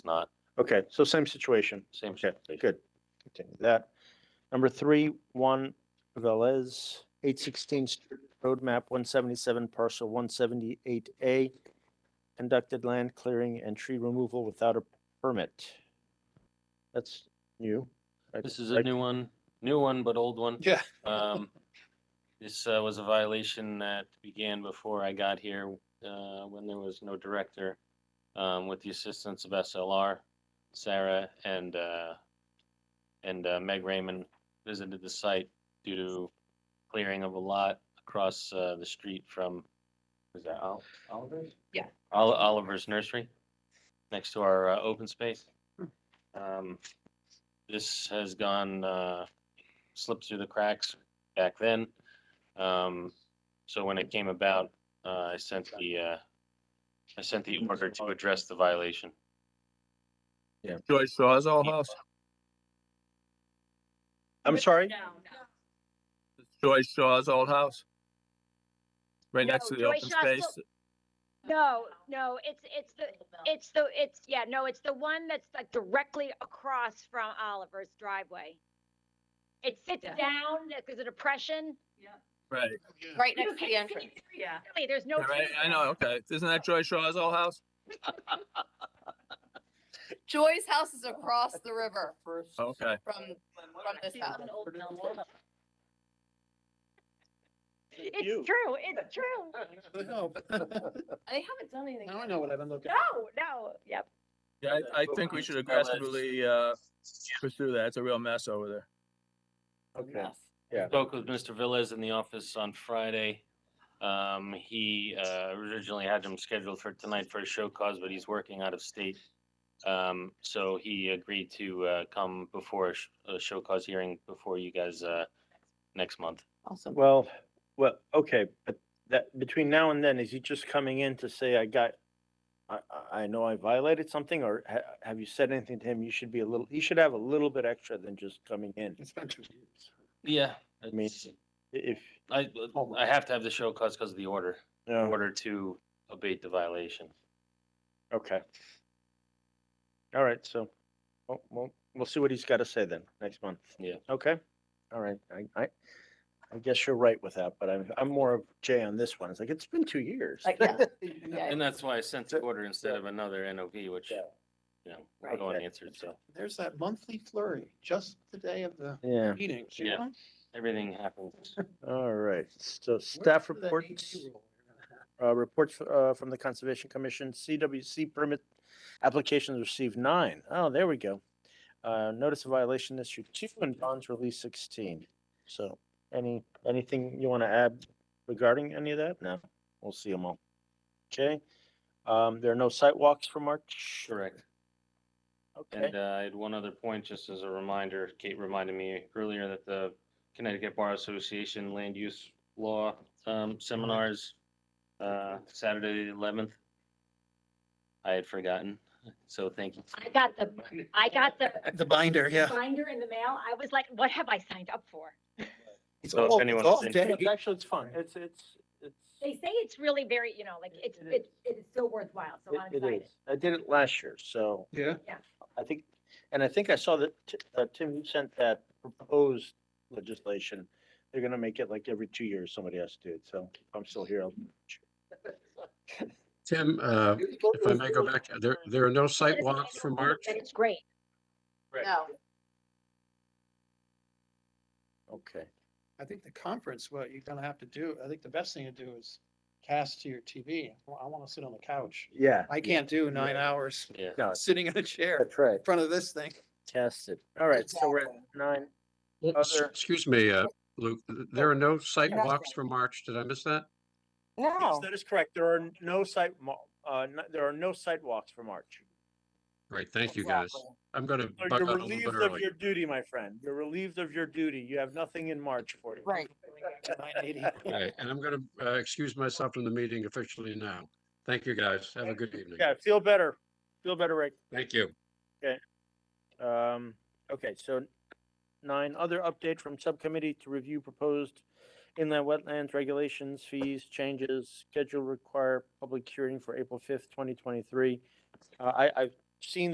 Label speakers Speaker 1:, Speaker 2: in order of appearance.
Speaker 1: not,
Speaker 2: Okay, so same situation.
Speaker 1: same.
Speaker 2: Okay,
Speaker 1: situation.
Speaker 2: good. Continue that. Number three, one Velez, eight sixteen roadmap, one seventy-seven parcel, one seventy-eight A. Conducted land clearing and tree removal without a permit. That's new. I-
Speaker 1: This is
Speaker 2: I-
Speaker 1: a new one, new one, but old one.
Speaker 3: Yeah.
Speaker 1: Um, this uh, was a violation that began before I got here, uh, when there was no director, um, with the assistance of SLR, Sarah and, uh, and uh, Meg Raymond visited the site due to clearing of a lot across, uh, the street from, is that Ol- Oliver's?
Speaker 4: Yeah.
Speaker 1: Ol- Oliver's Nursery, next to our, uh, open space.
Speaker 2: Hmm.
Speaker 1: Um, this has gone, uh, slipped through the cracks back then. Um, so when it came about, uh, I sent the, uh, I sent the order to address the violation.
Speaker 3: Joyce Sawzall House,
Speaker 2: I'm sorry?
Speaker 4: No,
Speaker 3: Joyce Shaw's old house. Right
Speaker 5: No,
Speaker 3: next to the
Speaker 5: Joyce
Speaker 3: open
Speaker 5: Shaw's
Speaker 3: space.
Speaker 5: still- No, no, it's, it's the, it's the, it's, yeah, no, it's the one that's like directly across from Oliver's driveway. It sits
Speaker 4: Yeah.
Speaker 5: down because of depression.
Speaker 3: Right,
Speaker 6: Right next to the entrance.
Speaker 4: Yeah.
Speaker 5: Really, There's no.
Speaker 3: Yeah, right,
Speaker 5: trees
Speaker 3: I
Speaker 5: there.
Speaker 3: know, okay. Isn't that Joyce Shaw's old house?
Speaker 6: Joy's house is across the river
Speaker 1: Oh.
Speaker 3: Okay,
Speaker 6: from, from this house.
Speaker 5: It's true, it's true.
Speaker 6: They haven't done anything.
Speaker 7: Now I know what I've been looking.
Speaker 5: No, Oh, no, yep.
Speaker 3: yeah, I, I think we should aggressively, uh, pursue that. It's a real mess over there.
Speaker 7: Okay.
Speaker 1: Spoke with Mr. Villas in the office on Friday. Um, he, uh, originally had him scheduled for tonight for a show cause, but he's working out of state. Um, so he agreed to, uh, come before a, sh- a show cause hearing before you guys, uh, next month.
Speaker 6: Awesome.
Speaker 2: Well, well, okay, but that, between now and then, is he just coming in to say, I got, I, I- I know I violated something, or ha- have you said anything to him? You should be a little, you should have a little bit extra than just coming in.
Speaker 7: It's been two years.
Speaker 1: Yeah.
Speaker 2: mean- I- If,
Speaker 1: I, I have to have the show cause because of the order,
Speaker 2: you
Speaker 1: in
Speaker 2: know,
Speaker 1: order to abate the violation.
Speaker 2: okay. All right, so, well, we'll, we'll see what he's got to say then, next month.
Speaker 1: Yeah.
Speaker 2: Okay, all right, I, I, I guess you're right with that, but I'm, I'm more of Jay on this one. It's like, it's been two years.
Speaker 6: Like, yeah.
Speaker 1: And that's why I sent the order instead of another NOV, which,
Speaker 2: Yeah.
Speaker 1: you know, no one answered, so
Speaker 7: There's that monthly flurry, just the day of the
Speaker 2: Yeah,
Speaker 7: meetings,
Speaker 1: Yeah.
Speaker 7: you know?
Speaker 1: everything happens.
Speaker 2: all right, so staff reports. Uh, reports, uh, from the Conservation Commission, CWC permit applications received nine. Oh, there we go. Uh, notice of violation issued two and bonds released sixteen. So any, anything you want to add regarding any of that? No, we'll see them all. Okay, um, there are no sidewalks for March.
Speaker 1: Correct.
Speaker 2: Okay,
Speaker 1: And uh, I had one other point, just as a reminder, Kate reminded me earlier that the Connecticut Bar Association Land Use Law um, Seminars, uh, Saturday the eleventh. I had forgotten, so thank you.
Speaker 5: I got the, I got the
Speaker 7: The binder, yeah.
Speaker 5: binder in the mail. I was like, what have I signed up for?
Speaker 7: It's
Speaker 1: So if
Speaker 7: all- it's
Speaker 1: anyone's
Speaker 7: all
Speaker 1: interested-
Speaker 7: day.
Speaker 2: actually, it's fun. It's, it's,
Speaker 5: They
Speaker 2: it's,
Speaker 5: say it's really very, you know, like it's,
Speaker 2: It
Speaker 5: it's, it's still worthwhile, so I'm
Speaker 2: it
Speaker 5: excited.
Speaker 2: is. I did it last year, so.
Speaker 7: Yeah.
Speaker 2: I think, and I think I saw that, Ti- uh, Tim, you sent that proposed legislation. They're gonna make it like every two years, somebody has to do it, so if I'm still here. I'll-
Speaker 8: Tim, uh, if I may go back, there, there are no site walks for March.
Speaker 5: And it's great.
Speaker 6: No.
Speaker 2: Okay,
Speaker 7: I think the conference, what you're gonna have to do, I think the best thing to do is cast to your TV. Well, I wanna sit on the couch.
Speaker 2: yeah.
Speaker 7: I can't do nine hours
Speaker 1: Yeah.
Speaker 2: No,
Speaker 7: sitting in a chair
Speaker 2: that's right,
Speaker 7: in front of this thing.
Speaker 2: test it. All right, so we're at nine.
Speaker 8: S-
Speaker 2: Other-
Speaker 8: Excuse me, uh, Luke, there are no site walks for March. Did I miss that?
Speaker 2: Yes,
Speaker 8: Oh.
Speaker 2: That is correct. There are no site, mo- uh, no- there are no sidewalks for March.
Speaker 8: Great, thank you, guys. I'm gonna
Speaker 2: So
Speaker 8: bug
Speaker 2: You're
Speaker 8: out a little bit
Speaker 2: relieved of
Speaker 8: early.
Speaker 2: your duty, my friend. You're relieved of your duty. You have nothing in March for you.
Speaker 6: Right.
Speaker 7: Nine eighty.
Speaker 8: Right, And I'm gonna, uh, excuse myself from the meeting officially now. Thank you, guys. Have a good evening.
Speaker 2: Yeah, feel better. Feel better, Rick.
Speaker 8: Thank you.
Speaker 2: Um, okay, so nine, other update from subcommittee to review proposed inland wetlands regulations, fees, changes, schedule require public hearing for April fifth, twenty twenty-three. Uh, I, I've seen